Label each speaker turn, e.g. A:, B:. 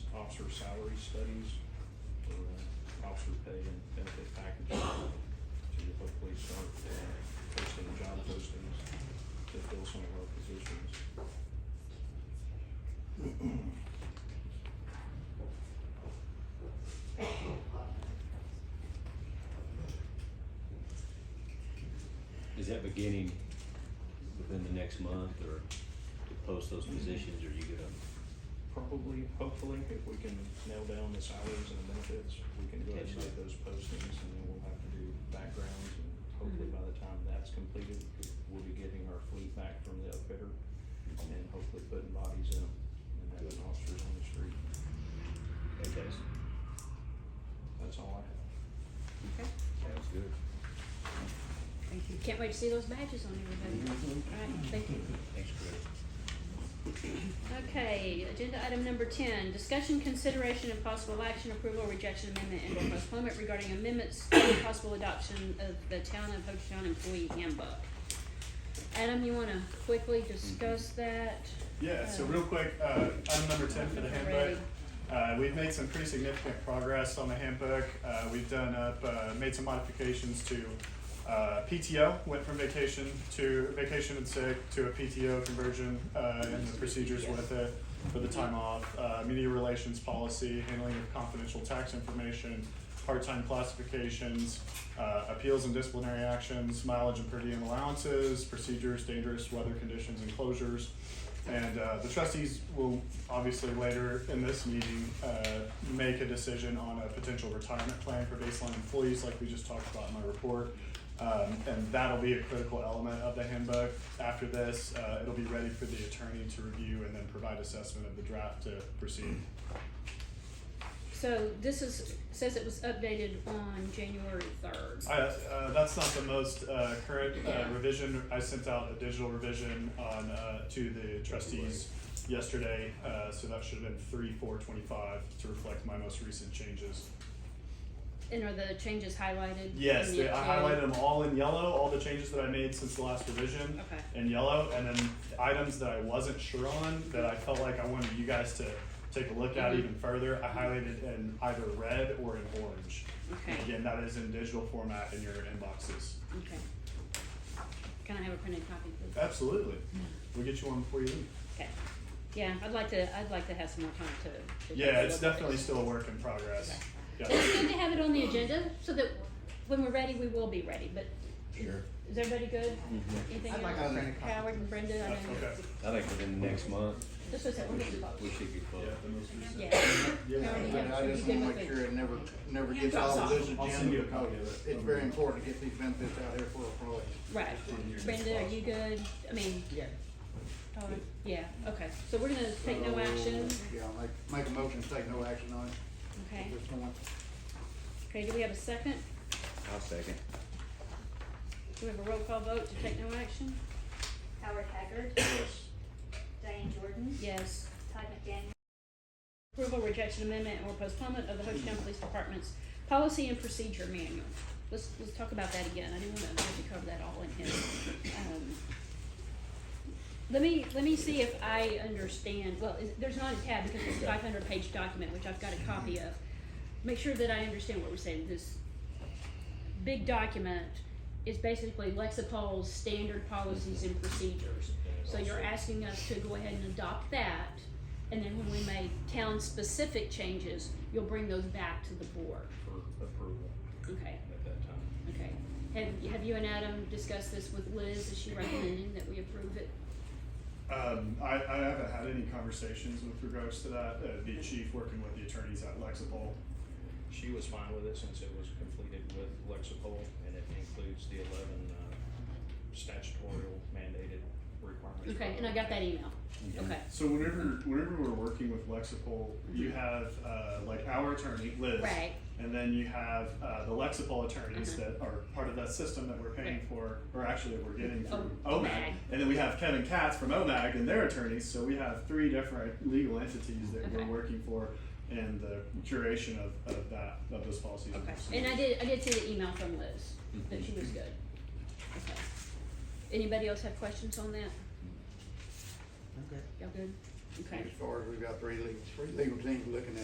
A: salary studies for uh, officer pay and benefit packages to hopefully start uh, posting job postings to fill some of our positions.
B: Is that beginning within the next month or to post those positions, or you gonna
A: Probably, hopefully, if we can nail down the salaries and the benefits, we can go ahead and make
B: Potentially.
A: those postings and then we'll have to do backgrounds and hopefully by the time that's completed, we'll be getting our fleet back from the outfitter and hopefully putting bodies in 'em and having officers on the street.
B: contest?
A: That's all I have.
C: Okay,
B: Sounds good.
C: thank you. Mm-hmm.
D: Can't wait to see those badges on everybody. Alright, thank you.
B: Thanks, Chris.
D: Okay, agenda item number ten, discussion, consideration, and possible action, approval, rejection, amendment, and or postponement regarding amendments and possible adoption of the town of Ho Chi Minh employee handbook. Adam, you wanna quickly discuss that?
E: Yeah, so
D: Uh,
E: real quick, uh, item number ten for the handbook.
D: Ready.
E: Uh, we've made some pretty significant progress on the handbook. Uh, we've done up, uh, made some modifications to, uh, PTO, went from vacation to vacation and sick to a PTO conversion, uh, and the procedures with it, for the time off, uh, media relations policy, handling of confidential tax information, part-time classifications, uh, appeals and disciplinary actions, mileage and per diem allowances, procedures, dangerous weather conditions and closures. And uh, the trustees will obviously later in this meeting uh, make a decision on a potential retirement plan for baseline employees, like we just talked about in my report. Um, and that'll be a critical element of the handbook. After this, uh, it'll be ready for the attorney to review and then provide assessment of the draft to proceed.
D: So this is, says it was updated on January third.
E: I, uh, that's not the most uh, current uh, revision. I sent out a digital revision on uh, to the trustees yesterday, uh, so that should have been three four twenty five to reflect my most recent changes.
D: And are the changes highlighted?
E: Yes,
D: in
E: they,
D: the
E: I
D: yellow?
E: highlighted them all in yellow. All the changes that I made since the last revision
D: Okay.
E: in yellow, and then items that I wasn't sure on that I felt like I wanted you guys to take a look at
D: Mhm.
E: even further. I highlighted in either red or in orange. And
D: Okay.
E: again, that is in digital format in your inboxes.
D: Okay. Can I have a printed copy, please?
E: Absolutely.
D: Hmm.
E: We'll get you one before you leave.
D: Okay. Yeah, I'd like to, I'd like to have some more time to. to take
E: Yeah,
D: a
E: it's
D: look at
E: definitely
D: this.
E: still a work in progress.
D: But
E: Yeah.
D: It's good to have it on the agenda so that when we're ready, we will be ready, but
B: Sure.
D: is everybody good? Anything
F: I'd like
D: else?
F: a printed copy.
D: Howard and Brenda, I know.
E: Uh, okay.
B: I think within the next month,
D: This was, we're
B: we
D: getting
B: should, we
D: close.
B: should get close.
D: Yeah.
E: Yeah.
D: Howard, you
F: But I
D: have-
F: just
D: you good
F: wanna make
D: with
F: sure
D: it?
F: it never, never gets
D: Drops
F: all
D: off.
F: of this
E: I'll send you a
F: agenda,
E: copy of
F: because
E: it.
F: it's very important to get these benefits out here for employees.
D: Right. Brenda, are you good? I mean,
F: Yeah.
D: Todd? Yeah, okay. So we're gonna take no action,
F: Yeah, make, make a motion, to take no action on it,
D: okay?
F: at this point.
D: Okay, do we have a second?
B: I'll second.
D: Do we have a roll call vote to take no action?
G: Howard Haggard. Diane Jordan.
D: Yes.
G: Todd McDaniel.
D: Approval, rejection, amendment, or postponement of the Ho Chi Minh Police Department's policy and procedure manual. Let's, let's talk about that again, I didn't wanna have to cover that all in here. Um, Let me, let me see if I understand, well, is- there's not a tab because it's a five hundred page document, which I've got a copy of. Make sure that I understand what we're saying, this big document is basically Lexipol's standard policies and procedures. So you're asking us to go ahead and adopt that, and then when we make town-specific changes, you'll bring those back to the board.
A: for approval
D: Okay,
A: at that time.
D: okay. Have, have you and Adam discussed this with Liz? Is she recommending that we approve it?
E: Um, I, I haven't had any conversations with regards to that. Uh, the chief working with the attorneys at Lexipol.
A: She was fine with it since it was completed with Lexipol and it includes the eleven uh, statutory mandated requirements.
D: Okay, and I got that email. Okay,
E: So whenever, whenever we're working with Lexipol, you have, uh, like our attorney, Liz.
D: Right.
E: And then you have, uh, the Lexipol attorneys
D: Uh-huh.
E: that are part of that system that we're paying
D: Right.
E: for, or actually that we're getting from
D: Oh,
E: OMAG.
D: OMAG.
E: And then we have Kevin Katz from OMAG and their attorneys, so we have three different legal entities that we're
D: Okay.
E: working for and the curation of, of that, of those policies. and
D: okay.
E: procedures.
D: And I did, I did see the email from Liz, that she was good. Okay. Anybody else have questions on that?
F: Okay.
D: Y'all good? Okay.
F: As far as we've got three legal, three legal teams looking at